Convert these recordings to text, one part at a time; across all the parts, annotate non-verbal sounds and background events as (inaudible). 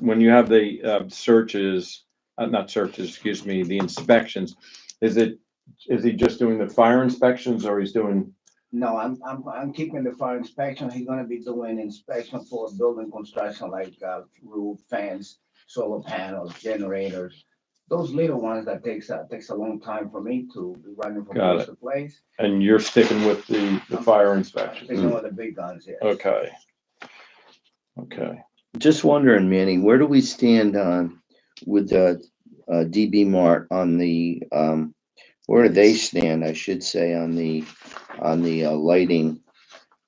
when you have the uh, searches, uh, not searches, excuse me, the inspections, is it, is he just doing the fire inspections or he's doing, No, I'm, I'm, I'm keeping the fire inspection. He's gonna be doing inspection for building construction like, uh, roof, fence, solar panels, generators. Those little ones that takes, uh, takes a long time for me to be running from Got place to place. and you're sticking with the, the fire Taking inspection? all the big guns here. Okay. Okay, Just wondering, Manny, where do we stand on with the uh, DB Mart on the, um, where do they stand, I should say, on the, on the uh, lighting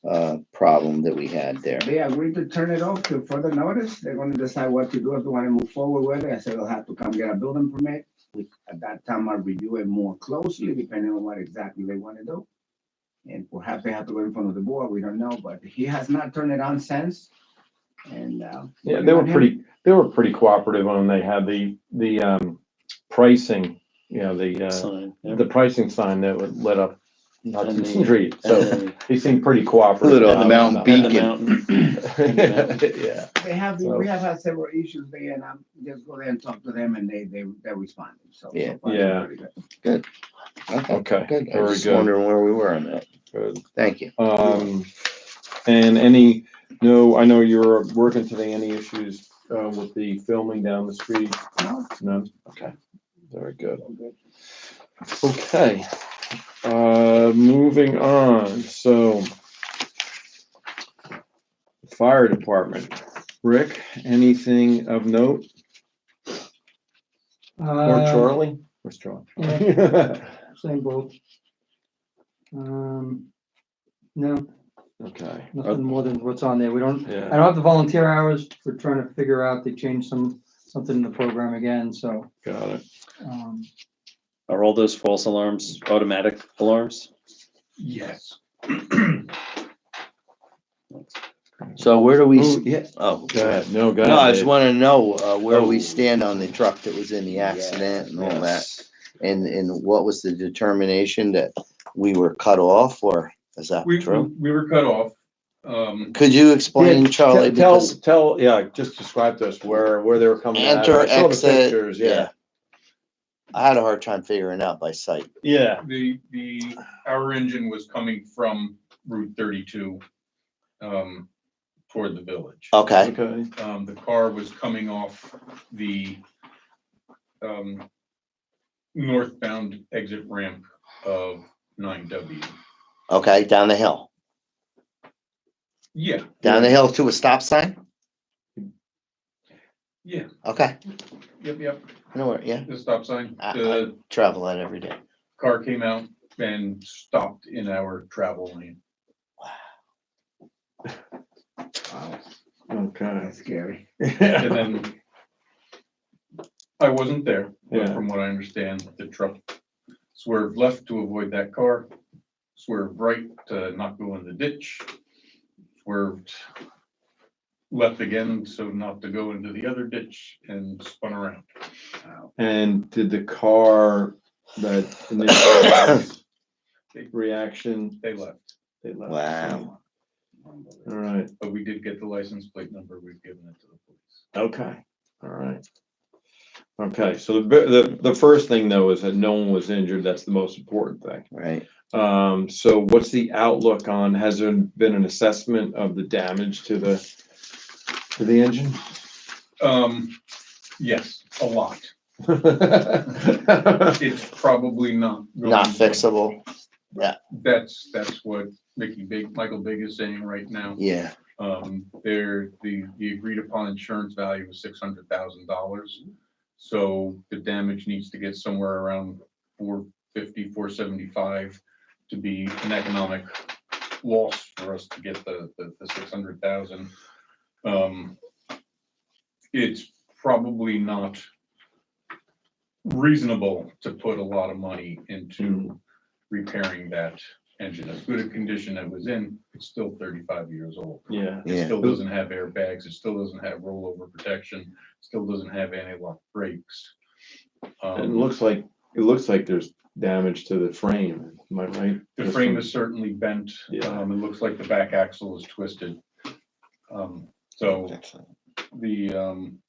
uh, problem that we had there? They agreed to turn it off to further notice. They're gonna decide what to do, if they wanna move forward with it. I said they'll have to come get a building permit. We- At that time, I'll review it more closely, depending on what exactly they wanna do. And perhaps they have to go in front of the board, we don't know, but he has not turned it on since. And, uh. yeah, they were pretty, they were pretty cooperative when they had the, the, um, pricing, you know, the, uh, sign. yeah. the pricing sign that would lit up Hudson And the- Street, And so the- he seemed pretty cooperative. Lit up the Um, mountain and the (laughs) Beacon. mountain. Yeah, They have, So- we have had several issues there, and I'm just go there and talk to them, and they, they, they responded, so. so Yeah. far, they're Yeah. pretty good. Okay, okay, good. I very just good. wondering where we were on that. Good. Thank you. Um, and any, no, I know you're working today, any issues, uh, with the filming down the street? No, None? Okay, very good. all good. Okay, uh, moving on, so. Fire department, Rick, anything of note, or Uh, Charlie? Where's Charlie? (laughs) Same boat. Um, no, Okay, nothing more than what's on there. We don't, I yeah, don't have the volunteer hours. We're trying to figure out, they changed some, something in the program again, so, got it. um, Are all those false alarms automatic alarms? Yes. So where do we, s- Oh, yeah. oh, go Go ahead. ahead. No, go no, I ahead. just want to know uh, where Oh. we stand on the truck that was in the accident and all that. Yes. And, and what was the determination that we were cut off or is that We, true? we were cut off. Um, Could you explain, Yeah, Charlie? Te- Tell, Because tell, yeah, just describe to us where, where they were coming out. of. Enter, I saw the exit, pictures, yeah. Yeah, I had a hard time figuring out by sight. yeah, the, the, our engine was coming from Route thirty-two, um, toward the village. Okay, okay, Um, the car was coming off the, um, northbound exit ramp of nine W. okay, down the hill, Yeah, down the hill to a stop sign? yeah, Okay, yep, yep, no, wor- yeah, the stop sign. I- I- The travel that every day. car came out and stopped in our travel lane. Wow, okay. (laughs) that's scary. And then I wasn't there, but Yeah. from what I understand, the truck swerved left to avoid that car, swerved right to not go in the ditch, swerved left again, so not to go into the other ditch and spun around. And did the car, that (coughs) initial reaction? They left, they left? Wow. All right, but we did get the license plate number. We've given it to the police. okay, all right. Okay, so the, bi- the, the first thing though is that no one was injured, that's the most important thing. Right, Um, so what's the outlook on, has there been an assessment of the damage to the, to the engine? (laughs) Um, yes, a lot. Okay, It's probably not. going not to- fixable, That's, that's what Mickey Big, Michael Big is saying right now. yeah, Um, there, the, the agreed upon insurance value was six hundred thousand dollars. So the damage needs to get somewhere around four fifty, four seventy-five to be an economic loss for us to get the, the, the six hundred thousand. Um, it's probably not reasonable to put a lot of money into repairing that engine. As good a condition it was in, it's still thirty-five years old. yeah. It yeah. still doesn't have airbags, it still doesn't have rollover protection, still doesn't have anti-lock brakes. It Um, looks like, it looks like there's damage to the frame, am I right? The frame is certainly bent, Yeah. um, it looks like the back axle is twisted. Um, so the, um,